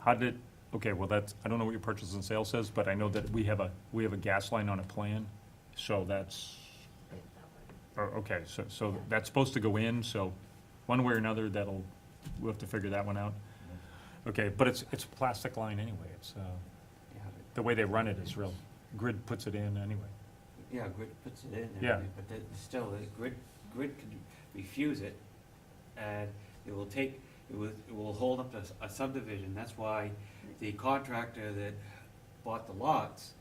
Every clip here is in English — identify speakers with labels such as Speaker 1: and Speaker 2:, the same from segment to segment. Speaker 1: How did, okay, well, that's, I don't know what your purchase and sale says, but I know that we have a, we have a gas line on a plan, so that's, oh, okay, so, so that's supposed to go in, so one way or another, that'll, we'll have to figure that one out. Okay, but it's, it's a plastic line anyway, it's, uh, the way they run it is real, grid puts it in anyway.
Speaker 2: Yeah, grid puts it in, and
Speaker 1: Yeah.
Speaker 2: everything, but then still, the grid, grid could refuse it, and it will take, it will, it will hold up a s- a subdivision, that's why the contractor that bought the lots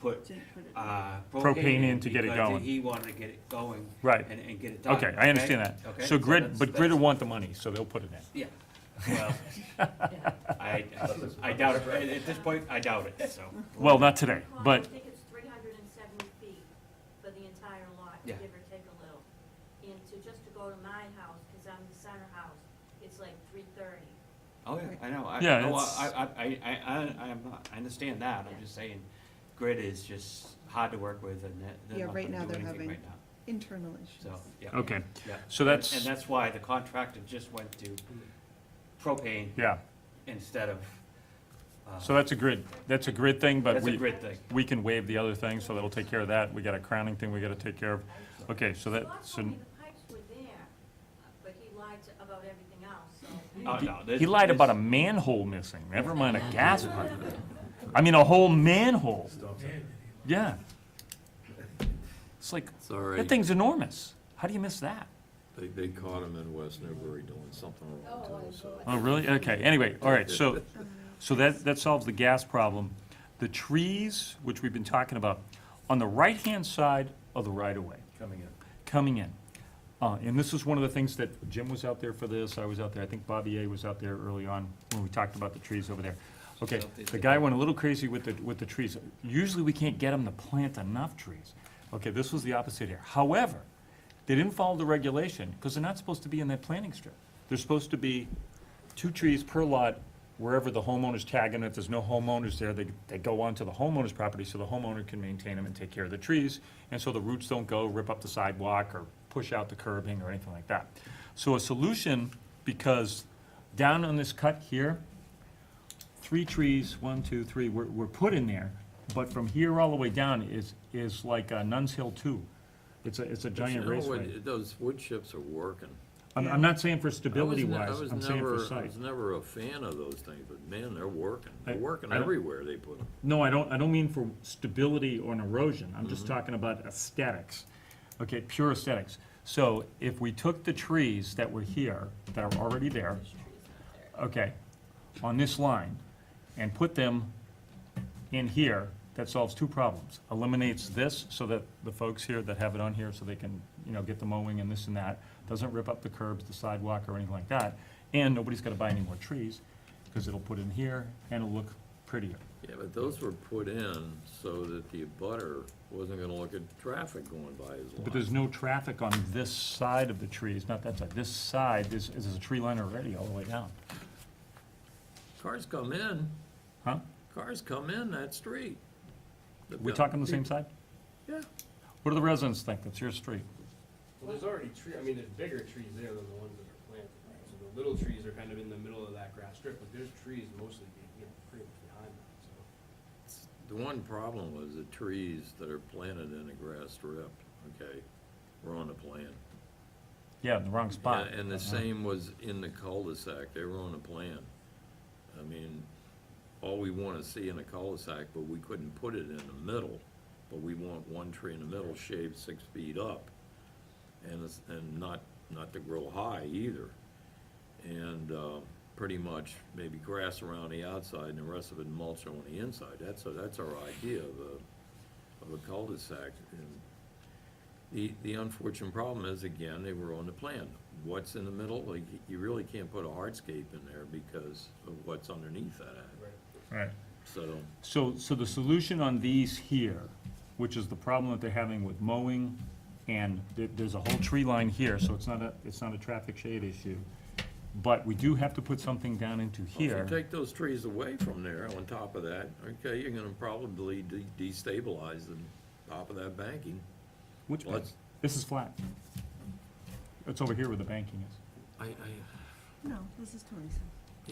Speaker 2: put,
Speaker 3: Didn't put it in.
Speaker 2: uh,
Speaker 1: Propane
Speaker 2: propane
Speaker 1: in
Speaker 2: in
Speaker 1: to get it
Speaker 2: because
Speaker 1: going.
Speaker 2: he wanted to get it going
Speaker 1: Right,
Speaker 2: and, and get it done.
Speaker 1: okay, I understand
Speaker 2: Okay,
Speaker 1: that. So
Speaker 2: that's-
Speaker 1: grid, but grid
Speaker 2: that's-
Speaker 1: will want the money, so they'll put it in.
Speaker 2: Yeah, well, I, I doubt it, at at this point, I doubt it, so.
Speaker 1: Well, not today,
Speaker 4: I
Speaker 1: but,
Speaker 4: think it's three hundred and seventy feet for the entire lot,
Speaker 2: Yeah.
Speaker 4: give or take a little. And to, just to go to my house, because I'm the center house, it's like three thirty.
Speaker 2: Oh, yeah, I know, I,
Speaker 1: Yeah,
Speaker 2: no,
Speaker 1: it's-
Speaker 2: I, I, I, I, I, I'm not- I understand that, I'm just saying, grid is just hard to work with and that,
Speaker 3: Yeah,
Speaker 2: they're not
Speaker 3: right
Speaker 2: gonna
Speaker 3: now
Speaker 2: do
Speaker 3: they're
Speaker 2: anything
Speaker 3: having-
Speaker 2: right now,
Speaker 3: Internal issues.
Speaker 2: so, yeah.
Speaker 1: okay,
Speaker 2: yeah.
Speaker 1: so
Speaker 2: And-
Speaker 1: that's-
Speaker 2: And that's why the contractor just went to propane
Speaker 1: yeah.
Speaker 2: instead of, uh,
Speaker 1: So that's a grid, that's a grid thing, but
Speaker 2: that's a
Speaker 1: we,
Speaker 2: grid thing.
Speaker 1: we can waive the other thing, so that'll take care of that. We got a crowning thing we gotta take care of. Okay, so that,
Speaker 4: Scott
Speaker 1: so,
Speaker 4: told me the pipes were there, uh, but he lied to- about everything else, so.
Speaker 2: Oh, no, this-
Speaker 1: he lied
Speaker 2: this-
Speaker 1: about a manhole missing, never mind a gas pipe. I mean, a whole manhole. Yeah. It's like,
Speaker 5: Sorry,
Speaker 1: that thing's enormous. How do you miss that?
Speaker 5: they, they caught him in West Newbury doing something wrong too, so.
Speaker 1: Oh, really? Okay, anyway, all right, so, so that, that solves the gas problem. The trees, which we've been talking about, on the right-hand side of the right-of-way. Coming in. Coming in. Uh, and this is one of the things that Jim was out there for this, I was out there, I think Bobby A was out there early on when we talked about the trees over there. Okay, the guy went a little crazy with the, with the trees. Usually we can't get him to plant enough trees. Okay, this was the opposite here. However, they didn't follow the regulation, because they're not supposed to be in that planting strip. They're supposed to be two trees per lot wherever the homeowner's tagging. If there's no homeowners there, they, they go onto the homeowner's property so the homeowner can maintain them and take care of the trees. And so the roots don't go rip up the sidewalk or push out the curbing or anything like that. So a solution, because down on this cut here, three trees, one, two, three, were, were put in there. But from here all the way down is, is like uh, Nuns Hill Two. It's a, it's a
Speaker 5: You
Speaker 1: giant
Speaker 5: know, when-
Speaker 1: raceway.
Speaker 5: Those wood chips are working.
Speaker 1: I'm, I'm not saying for
Speaker 5: I was
Speaker 1: stability
Speaker 5: ne-
Speaker 1: wise,
Speaker 5: I was
Speaker 1: I'm saying
Speaker 5: never-
Speaker 1: for
Speaker 5: I
Speaker 1: sight.
Speaker 5: was never a fan of those things, but man, they're working.
Speaker 1: I-
Speaker 5: They're working
Speaker 1: I don't-
Speaker 5: everywhere they put them.
Speaker 1: No, I don't, I don't mean for stability or an erosion, I'm
Speaker 5: Mm-hmm.
Speaker 1: just talking about aesthetics, okay, pure aesthetics. So if we took the trees that were here, that are already there, okay, on this line, and put them in here, that solves two problems. Eliminates this, so that the folks here that have it on here, so they can, you know, get the mowing and this and that, doesn't rip up the curbs, the sidewalk, or anything like that, and nobody's gotta buy any more trees, because it'll put in here, and it'll look prettier.
Speaker 5: Yeah, but those were put in so that the butter wasn't gonna look at traffic going by his
Speaker 1: But there's
Speaker 5: lot.
Speaker 1: no traffic on this side of the trees, not that side, this side, there's, there's a tree line already all the way down,
Speaker 5: Cars come in,
Speaker 1: huh?
Speaker 5: cars come in that street.
Speaker 1: We talking the same side?
Speaker 5: Yeah.
Speaker 1: What do the residents think, that's your street?
Speaker 6: Well, there's already tree, I mean, there's bigger trees there than the ones that are planted. right? So the little trees are kind of in the middle of that grass strip, but there's trees mostly, being, you know, pretty much behind that, so.
Speaker 5: The one problem was the trees that are planted in a grass strip, okay, were on the plan.
Speaker 1: Yeah, in the wrong spot. Uh-huh.
Speaker 5: Yeah, And the same was in the cul-de-sac, they were on a plan. I mean, all we wanna see in a cul-de-sac, but we couldn't put it in the middle, but we want one tree in the middle shaved six feet up. And it's, and not, not to grow high either. And, uh, pretty much maybe grass around the outside and the rest of it mulch on the inside, that's, a- that's our idea of a, of a cul-de-sac. And the, the unfortunate problem is, again, they were on the plan. What's in the middle, like, you really can't put a hardscape in there because of what's underneath that.
Speaker 1: Right.
Speaker 5: So,
Speaker 1: So, so the solution on these here, which is the problem that they're having with mowing, and there, there's a whole tree line here, so it's not a, it's not a traffic shade issue. But we do have to put something down into
Speaker 5: Oh, if you
Speaker 1: here.
Speaker 5: take those trees away from there on top of that, okay, you're gonna probably de- destabilize the top of that banking.
Speaker 1: Which
Speaker 5: Well,
Speaker 1: bank?
Speaker 5: it's-
Speaker 1: This is flat. It's over here where the banking is.
Speaker 5: I, I,
Speaker 3: No, this is Tony's house.